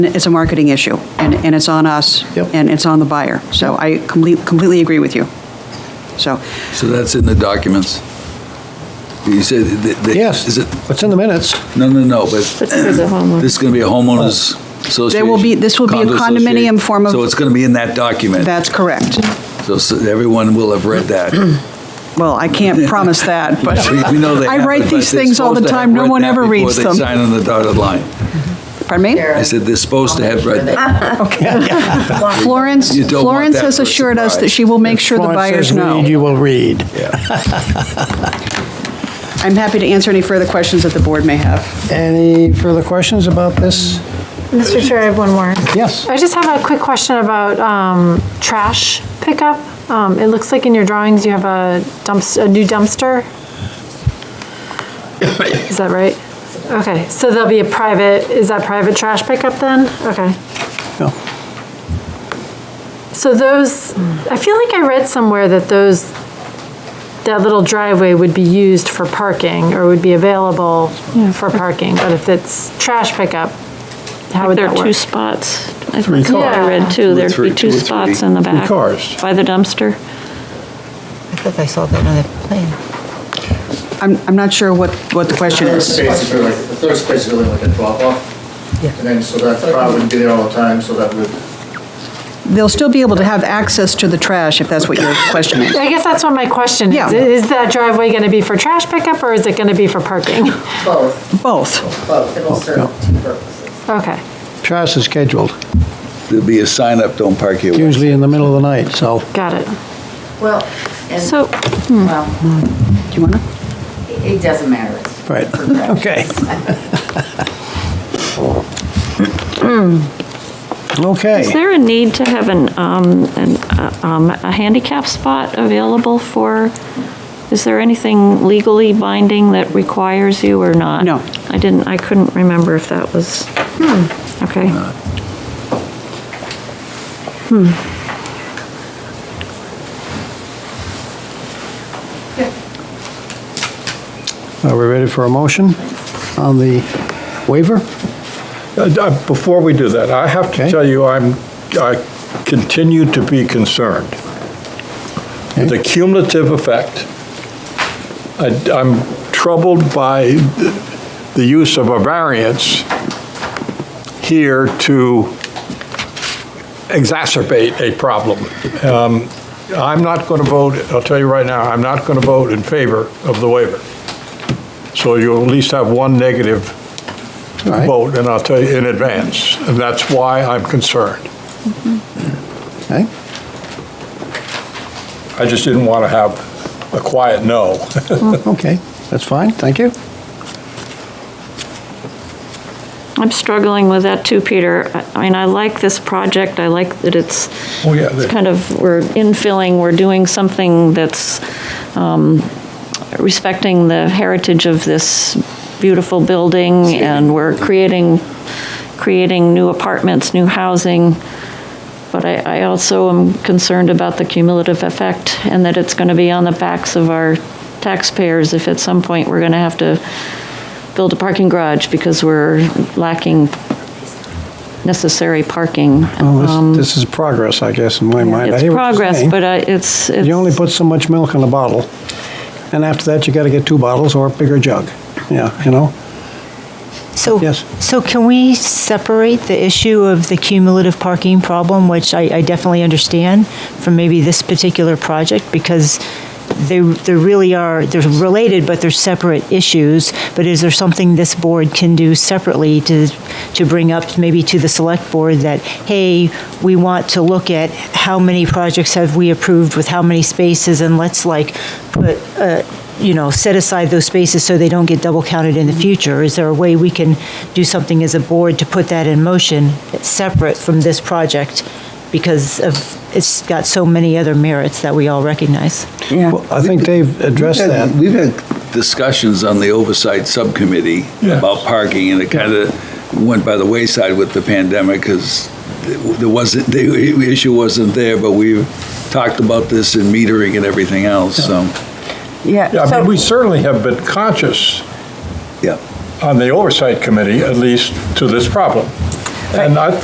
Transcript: It's a marketing issue, and, and it's on us, Yep. and it's on the buyer. So I complete- completely agree with you. So, So that's in the documents? You said that... that- Yes, Is it, it's in the minutes. no, no, no, but But for the homeowner. this is going to be a homeowners association? will be- this will be a condo condominium association. form of- So it's going to be in that document? that's correct. So so everyone will have read that. Well, I can't promise that, but We- we know they I write haven't, but these they're things all the supposed to have time. No read one that ever reads Before them. they sign on the dotted line. Pardon me? I said they're supposed to have read that. Florence, You don't want Florence that has for a assured us that surprise. she will make sure the buyers Florence says read, know. you will read. I'm happy to answer any further questions that the board may have. Any further questions about this? Mr. Chair, I have one more. Yes. I just have a quick question about um, trash pickup. Um, It looks like in your drawings, you have a dumpster, a new dumpster. Is that right? Okay, so there'll be a private, is that private trash pickup then? Okay. No. So those, I feel like I read somewhere that those, that little driveway would be used for parking or would be available for parking, but if it's trash pickup, how would There that are two work? spots. I think I cars. read two. There'd Three- be two two or spots three. in the back. cars. By the dumpster. I think I saw that on the plan. I'm, I'm not sure what, what the question Third is. space is really, the third space is really like a drop-off. Yeah. And then, so that car wouldn't be there all the time, so that would, They'll still be able to have access to the trash if that's what your question is. I guess that's what my question Yeah. is. Is that driveway going to be for trash pickup or is it going to be for parking? both, Both. both, Oh, it'll serve two purposes. Okay. Trash is scheduled, There'll be a sign up, don't park here. usually in the middle of the night, so. Got it. Well, and, So well, Do you want to? it it doesn't matter. It's Right, progression. okay. Okay. is there a need to have an, um, an, uh, um, a handicap spot available for, is there anything legally binding that requires you or not? No. I didn't, I couldn't remember if that was, Hmm. okay. Are we ready for a motion on the waiver? Uh, uh, Before we do that, I have to Okay. tell you, I'm, I continue to be concerned. with The cumulative effect, I- I'm troubled by the- the use of a variance here to exacerbate a problem. Um, I'm not going to vote, I'll tell you right now, I'm not going to vote in favor of the waiver. So you'll at least have one negative All right. vote, and I'll tell you in advance, and that's why I'm concerned. Okay. I just didn't want to have a quiet no. Okay, that's fine, thank you. I'm struggling with that too, Peter. I I mean, I like this project, I like that it's, Oh, yeah, it's the- kind of, we're infilling, we're doing something that's um, respecting the heritage of this beautiful building, and we're creating, creating new apartments, new housing, but I, I also am concerned about the cumulative effect, and that it's going to be on the backs of our taxpayers if at some point we're going to have to build a parking garage because we're lacking necessary parking. Well, Um, this- This is progress, I guess, in my mind. I It's hear what you're progress, saying. but uh, it's, it's. You only put so much milk in a bottle, and after that, you got to get two bottles or a bigger jug. Yeah, you know? So, Yes. so can we separate the issue of the cumulative parking problem, which I, I definitely understand, from maybe this particular project? Because they, they really are, they're related, but they're separate issues. But is there something this board can do separately to, to bring up maybe to the select board that, hey, we want to look at how many projects have we approved with how many spaces, and let's like put a, you know, set aside those spaces so they don't get double counted in the future? Is there a way we can do something as a board to put that in motion separate from this project? Because of, it's got so many other merits that we all recognize. Well, I think they've addressed We've had- that. We've had discussions on the oversight subcommittee Yeah. about parking, and it kind of went by the wayside with the pandemic because there wasn't, the issue wasn't there, but we talked about this in metering and everything else, so, Yeah, I mean, we certainly have been conscious yeah. on the oversight committee, at least to this problem. And I